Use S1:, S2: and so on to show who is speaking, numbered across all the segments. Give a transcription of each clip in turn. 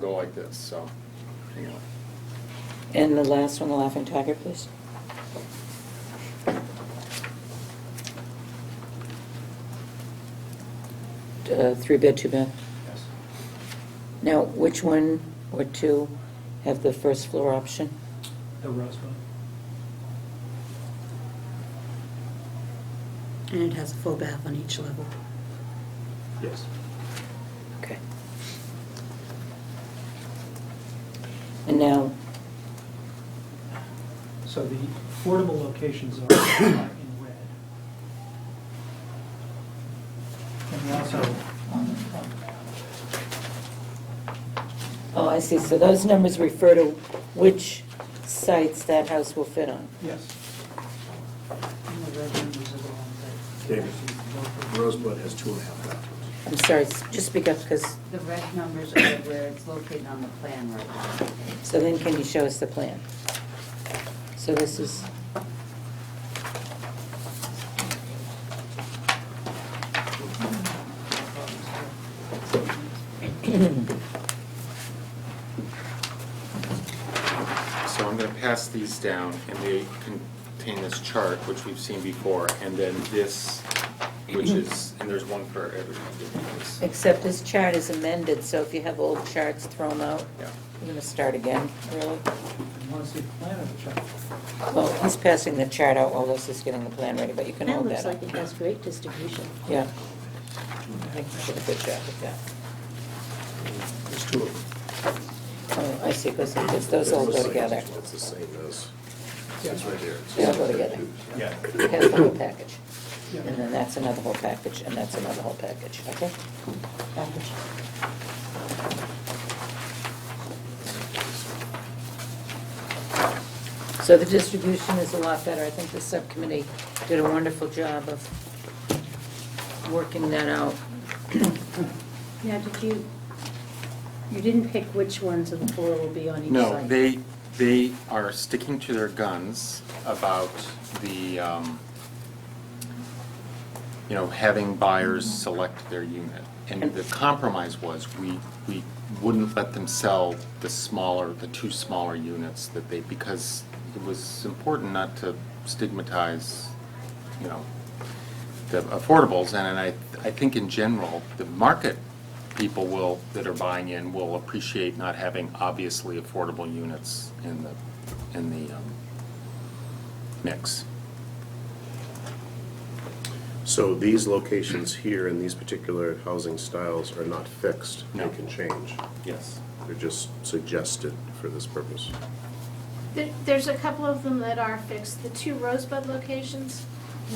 S1: go like this, so, anyway.
S2: And the last one, the Laughing Tiger, please. Uh, Three bed, two bath.
S1: Yes.
S2: Now, which one or two have the first floor option?
S3: The Rosebud.
S4: And it has a full bath on each level.
S3: Yes.
S2: Okay. And now,
S3: So the affordable locations are in red. And we also, on the, on-
S2: oh, I see, so those numbers refer to which sites that house will fit on.
S3: yes. And the red numbers are the ones that-
S5: David. Rosebud has two and a half bathrooms.
S2: I'm sorry, s- just speak up, because,
S6: The red numbers are where it's located on the plan right now.
S2: so then can you show us the plan? So this is,
S1: So I'm gonna pass these down, and they contain this chart, which we've seen before, and then this, which is, and there's one for every one of these.
S2: except this chart is amended, so if you have old charts, throw them out.
S1: Yeah.
S2: We're going to start again, really?
S3: You want to see the plan of the chart?
S2: Well, he's passing the chart out while this is getting the plan ready, but you can
S4: That
S2: hold
S4: looks
S2: that up.
S4: like it has great distribution.
S2: Yeah. I think you did a good job with that.
S5: There's two of
S2: Oh, I see, because
S5: them.
S2: those all go together.
S5: It's the same as, it's right here.
S2: They all go together.
S5: Yeah.
S2: It has the whole package.
S3: Yeah.
S2: And then that's another whole package, and that's another whole package, okay? Package. So the distribution is a lot better. I think the subcommittee did a wonderful job of working that out.
S4: Now, did you, you didn't pick which ones of the four will be on each side?
S1: No, they, they are sticking to their guns about the, um, you know, having buyers select their unit. And the compromise was, we, we wouldn't let them sell the smaller, the two smaller units that they, because it was important not to stigmatize, you know, the affordables, and I, I think in general, the market people will, that are buying in, will appreciate not having obviously affordable units in the, in the um, mix.
S5: So these locations here in these particular housing styles are not fixed.
S1: No.
S5: They can change.
S1: Yes.
S5: They're just suggested for this purpose.
S7: There- There's a couple of them that are fixed, the two Rosebud locations,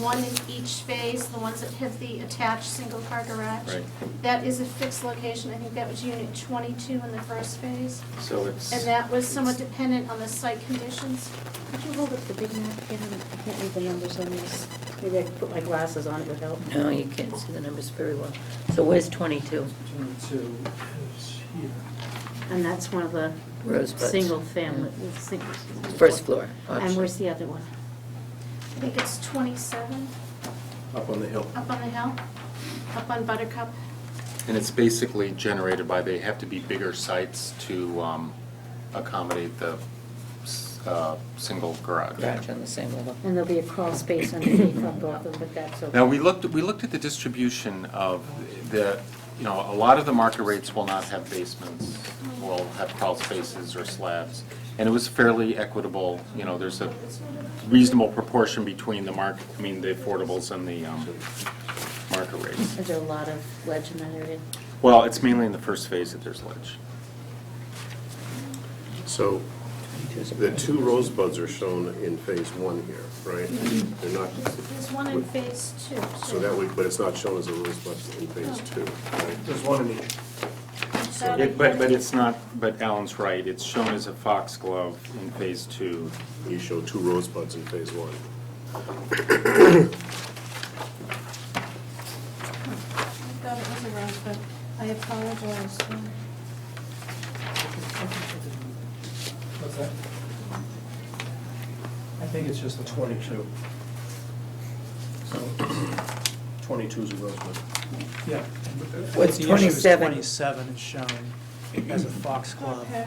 S7: one in each space, the ones that have the attached single-car garage.
S1: Right.
S7: That is a fixed location, I think that was unit twenty-two in the first phase,
S1: So it's,
S7: and that was somewhat dependent on the site conditions.
S4: Could you hold up the big map again? I can't read the numbers on this. Maybe I could put my glasses on, it would help.
S2: No, you can't see the numbers very well. So where's 22?
S3: Turn to, is here.
S4: And that's one of the
S2: Rosebuds.
S4: single family, the single.
S2: First floor option.
S4: And where's the other one?
S7: I think it's twenty-seven,
S5: Up on the hill.
S7: up on the hill, up on Buttercup.
S1: and it's basically generated by, they have to be bigger sites to um, accommodate the s- uh, single garage.
S2: Garage on the same level.
S4: And there'll be a crawl space underneath on both of them, but that's okay.
S1: Now, we looked, we looked at the distribution of the, you know, a lot of the market rates will not have basements, will have crawl spaces or slabs, and it was fairly equitable, you know, there's a reasonable proportion between the market, I mean, the affordables and the um, market rates.
S4: Is there a lot of ledge in that area?
S1: Well, it's mainly in the first phase that there's ledge.
S5: So the two rosebuds are shown in phase one here, right? They're not,
S7: There's there's one in phase two.
S5: so that would, but it's not shown as a rosebud in phase two, right?
S3: There's one in each.
S7: That-
S1: It- But, but it's not, but Alan's right, it's shown as a foxglove in phase two.
S5: You show two rosebuds in phase one.
S7: I thought it was a Rosebud, I apologize.
S3: What's that? I think it's just the twenty-two. So,
S5: Twenty-two is a rosebud.
S3: Yeah.
S2: What's
S3: The issue is
S2: 27?
S3: Twenty-seven is shown as a foxglove.